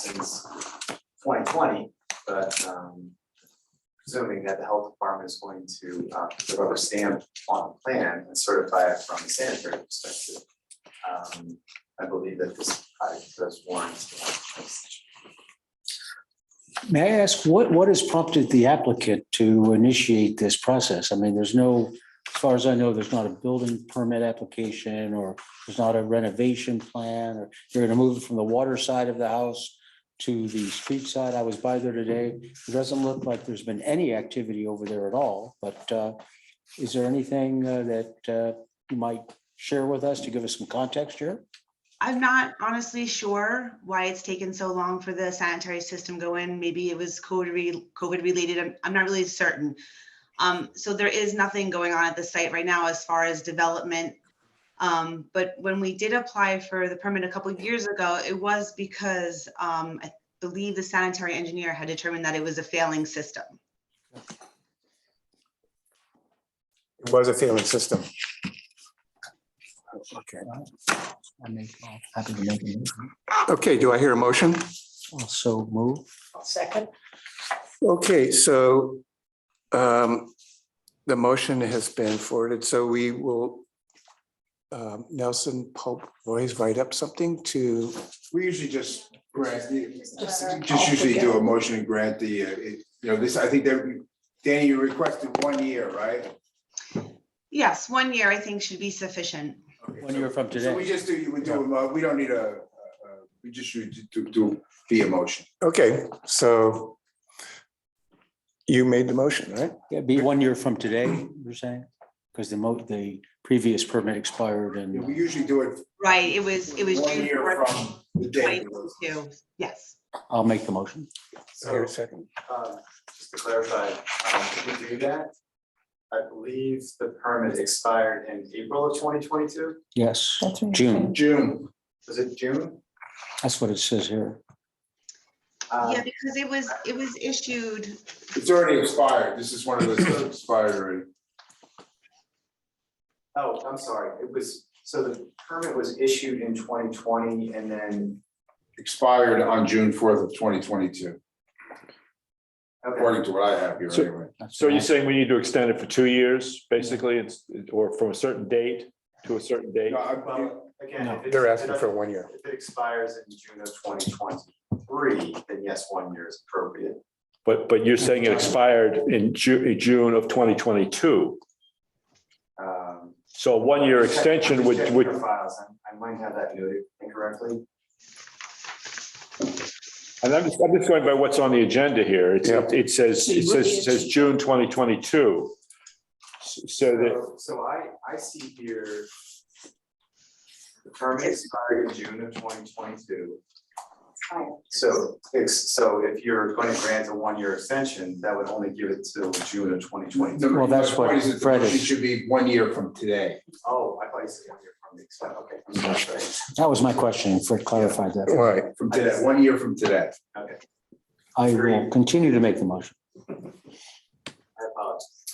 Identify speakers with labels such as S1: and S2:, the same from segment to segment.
S1: since twenty twenty, but um. Presuming that the health department is going to uh put the rubber stamp on the plan and certify it from a sanitary perspective. Um, I believe that this project does warrant.
S2: May I ask, what, what has prompted the applicant to initiate this process? I mean, there's no, as far as I know, there's not a building permit application or there's not a renovation plan or you're gonna move it from the water side of the house to the street side. I was by there today. It doesn't look like there's been any activity over there at all, but uh, is there anything uh, that uh, you might share with us to give us some context here?
S3: I'm not honestly sure why it's taken so long for the sanitary system go in. Maybe it was COVID re- COVID related. I'm, I'm not really certain. Um, so there is nothing going on at the site right now as far as development. Um, but when we did apply for the permit a couple of years ago, it was because um, I believe the sanitary engineer had determined that it was a failing system.
S4: It was a failing system.
S2: Okay. I'm happy to make it.
S4: Okay, do I hear a motion?
S2: Also move.
S5: Second,
S4: Okay, so um, the motion has been forwarded, so we will um, Nelson Pope, always write up something to,
S6: We usually just grant,
S5: Just a
S6: just usually do a
S5: altogether.
S6: motion and grant the, uh, it- you know, this, I think that, Danny, you requested one year, right?
S3: Yes, one year I think should be sufficient.
S6: Okay,
S2: One
S6: so-
S2: year from
S6: So we
S2: today.
S6: just do, we do, uh, we don't need a, uh, we just should do, do the motion.
S4: okay, so you made the motion, right?
S2: It'd be one year from today, you're saying? Because the mo, the previous permit expired
S6: We
S2: and,
S6: usually do it.
S3: Right, it was, it was
S6: One
S3: June
S6: year
S3: 14th,
S6: from the day. it was.
S3: 2022. Yes.
S2: I'll make the motion.
S4: I hear a second.
S1: Um, Just to clarify, um, if we do that, I believe the permit expired in April of twenty twenty-two.
S2: Yes,
S5: That's right.
S2: June,
S6: June.
S1: Was it June?
S2: that's what it says here.
S1: Uh,
S3: Yeah, because it was, it was issued,
S6: It's already expired. This is one of those that expired already.
S1: Oh, I'm sorry, it was, so the permit was issued in twenty twenty and then,
S6: Expired on June fourth of twenty twenty-two,
S1: okay,
S6: according to what I have here
S7: So-
S6: anyway.
S2: That's
S7: So
S2: what I-
S7: you're saying we need to extend it for two years, basically, it's, or from a certain date to a certain date?
S6: No, I-
S1: well, again, if it.
S4: They're asking for one year.
S1: If it expires in June of twenty twenty-three, then yes, one year is appropriate.
S7: But, but you're saying it expired in Ju- June of twenty twenty-two.
S1: Um,
S7: So a one-year
S1: I'm just checking-
S7: extension
S1: I'm just
S7: would,
S1: checking your
S7: would,
S1: Files, I I might have that noted incorrectly.
S7: and I'm just, I'm just going by what's on the agenda here. It's,
S4: Yeah.
S7: it says, it says, it says June twenty twenty-two. So that,
S1: So- So I, I see here. The permit expired in June of twenty twenty-two. So, ex- so if you're going to grant a one-year extension, that would only give it till June of twenty twenty-two.
S2: Well, that's what
S6: My point is that the
S2: Fred
S6: motion
S2: is-
S6: Should be one year from today.
S1: Oh, I thought you said one year from the expiry, okay. I'm sorry.
S2: That was my question. Fred clarified that.
S4: Right,
S6: From today, one year from today.
S1: Okay,
S2: I will continue to make the motion.
S1: I apologize.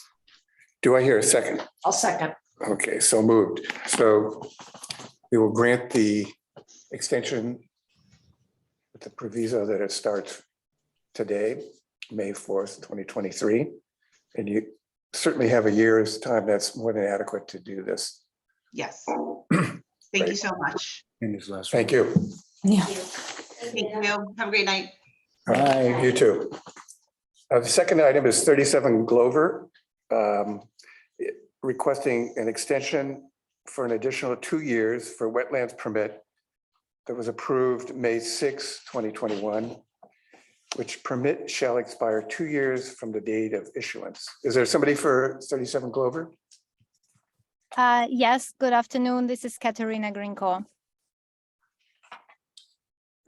S4: do I hear a second?
S5: I'll second.
S4: Okay, so moved. So we will grant the extension with the proviso that it starts today, May 4th, 2023. And you certainly have a year's time. That's more than adequate to do this.
S3: yes. Thank you so much.
S2: In his last.
S4: Thank you.
S5: Yeah.
S3: Thank you. Have a great night.
S2: Bye.
S4: You too. Uh, The second item is 37 Glover, um, requesting an extension for an additional two years for wetlands permit that was approved May 6, 2021, which permit shall expire two years from the date of issuance. Is there somebody for 37 Glover?
S8: Uh, yes, good afternoon. This is Katerina Grinko.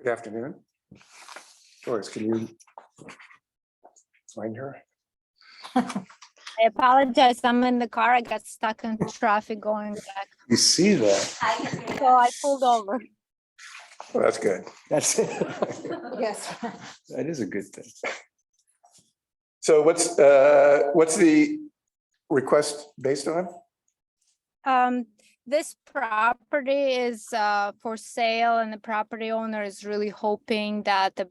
S4: Good afternoon. Doris, can you find her?
S8: I apologize. I'm in the car. I got stuck in traffic going back.
S4: You see that?
S8: So I pulled over.
S4: Well, That's good.
S2: That's,
S5: Yes.
S2: that is a good thing.
S4: So what's, uh, what's the request based on?
S8: Um, this property is, uh, for sale and the property owner is really hoping that the